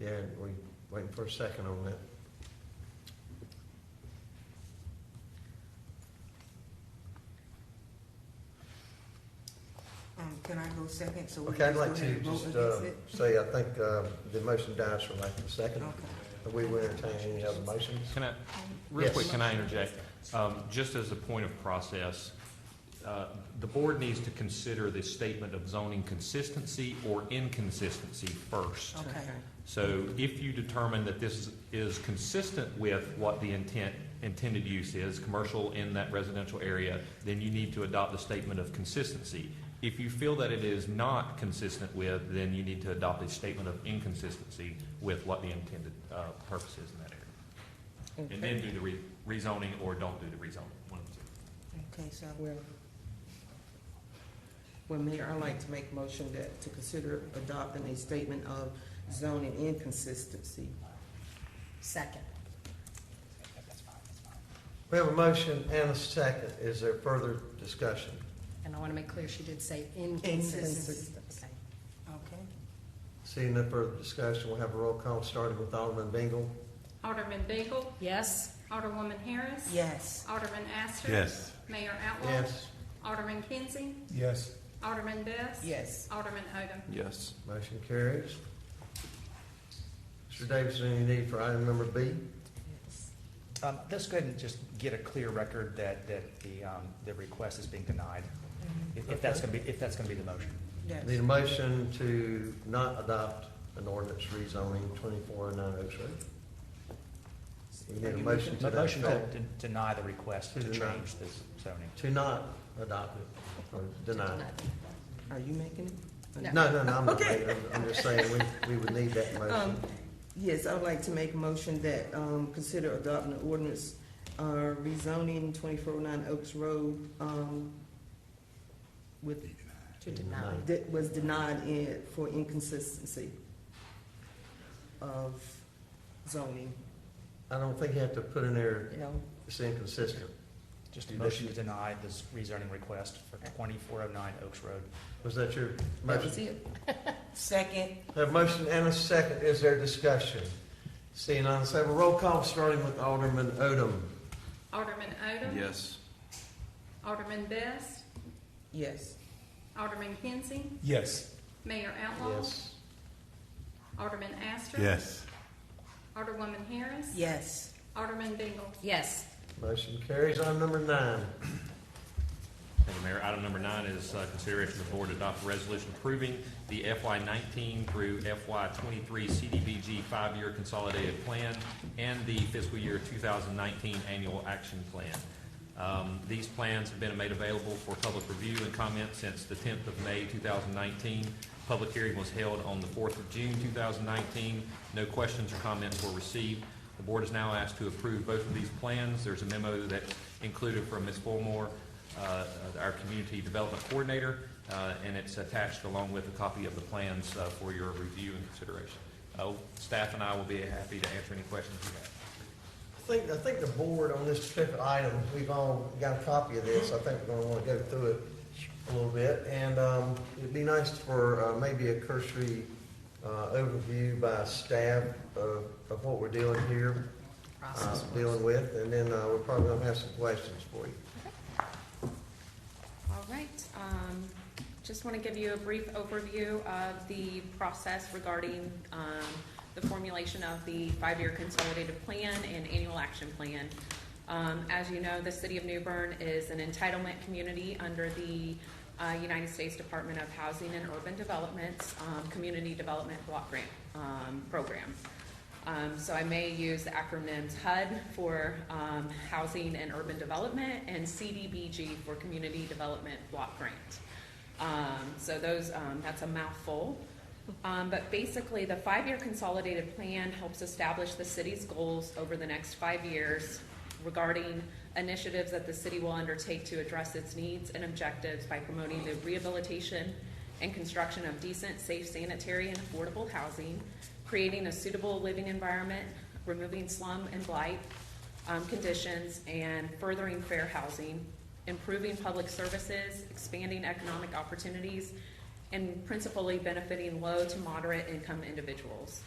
Yeah, we waiting for a second on that. Um, can I go second? So we Okay, I'd just like go to ahead and vote just against uh, it? say, I think uh, the motion dies for lack of a second. Okay. We will entertain any other motions. Can I, real Yes. quick, can I interject? Um, Just as a point of process, uh, the board needs to consider the statement of zoning consistency or inconsistency first. Okay, So if you determine that this is consistent with what the intent, intended use is, commercial in that residential area, then you need to adopt the statement of consistency. If you feel that it is not consistent with, then you need to adopt a statement of inconsistency with what the intended uh, purpose is in that area. And then do the re- rezoning or don't do the rezoning, one of the two. okay, so, Well, Well, Mayor, I'd like to make a motion that, to consider adopting a statement of zoning inconsistency. Second. We have a motion and a second. Is there further discussion? And I want to make clear, she did say inconsistent. Inconsistent. okay. Seeing no further discussion, we'll have a roll call starting with Alderman Bingle. Alderman Beagle, Yes? Alderwoman Harris. Yes, Alderman Astor. Yes. Mayor Outlaw. Yes. Alderman Kinsey, Yes. Alderman Best. Yes. Alderman Odom. Yes. Motion carries. Mr. Davidson, any need for item number B? Um, Let's go ahead and just get a clear record that, that the, um, the request is being denied, if if that's gonna be, if that's gonna be the motion. yes. Need a motion to not adopt an ordinance rezoning 24903. We need a motion to The that motion to effect. to deny the request to To deny. change the zoning. To not adopt it, or deny it. Are you making it? No. No, no, no, I'm not, Okay. I'm- I'm just saying, we, we would need that motion. Um, Yes, I'd like to make a motion that, um, consider adopting an ordinance, uh, rezoning twenty-four oh nine Oaks Road, um, with, To deny. that was denied in, for inconsistency of zoning, I don't think you have to put in there, you know? it's inconsistent. Just a motion to deny this rezoning request for 2409 Oaks Road. Was that your That was motion? it. Second, Have a motion and a second, is there discussion? Seeing none, so a roll call, starting with Alderman Odom. Alderman Odom. Yes. Alderman Best. Yes. Alderman Kinsey, Yes. Mayor Outlaw. Yes. Alderman Astor. Yes. Alderwoman Harris. yes. Alderman Bingle. Yes. Motion carries, item number nine. Thank you, Mayor. Item number nine is uh, consideration of the board to adopt a resolution approving the FY nineteen through FY twenty-three CDBG five-year consolidated plan and the fiscal year two thousand nineteen annual action plan. Um, These plans have been made available for public review and comment since the tenth of May two thousand nineteen. Public hearing was held on the fourth of June two thousand nineteen. No questions or comments were received. The board is now asked to approve both of these plans. There's a memo that's included from Ms. Fulmore uh, our community development coordinator, uh, and it's attached along with a copy of the plans uh, for your review and consideration. Uh, Staff and I will be happy to answer any questions you have. I think, I think the board on this particular item, we've all got a copy of this, I think we're gonna wanna go through it a little bit, and, um, it'd be nice for, uh, maybe a cursory, uh, overview by staff of, of what we're dealing here, uh, Process. dealing with, and then, uh, we're probably gonna have some questions for you. All right, um, just want to give you a brief overview of the process regarding, um, the formulation of the five-year consolidated plan and annual action plan. Um, as you know, the city of New Bern is an entitlement community under the, uh, United States Department of Housing and Urban Development's, um, Community Development Block Grant, um, program. Um, so I may use the acronyms HUD for um, Housing and Urban Development and CDBG for Community Development Block Grant. Um, so those, um, that's a mouthful. Um, but basically, the five-year consolidated plan helps establish the city's goals over the next five years regarding initiatives that the city will undertake to address its needs and objectives by promoting the rehabilitation and construction of decent, safe, sanitary, and affordable housing, creating a suitable living environment, removing slum and blight um, conditions, and furthering fair housing, improving public services, expanding economic opportunities, and principally benefiting low to moderate income individuals.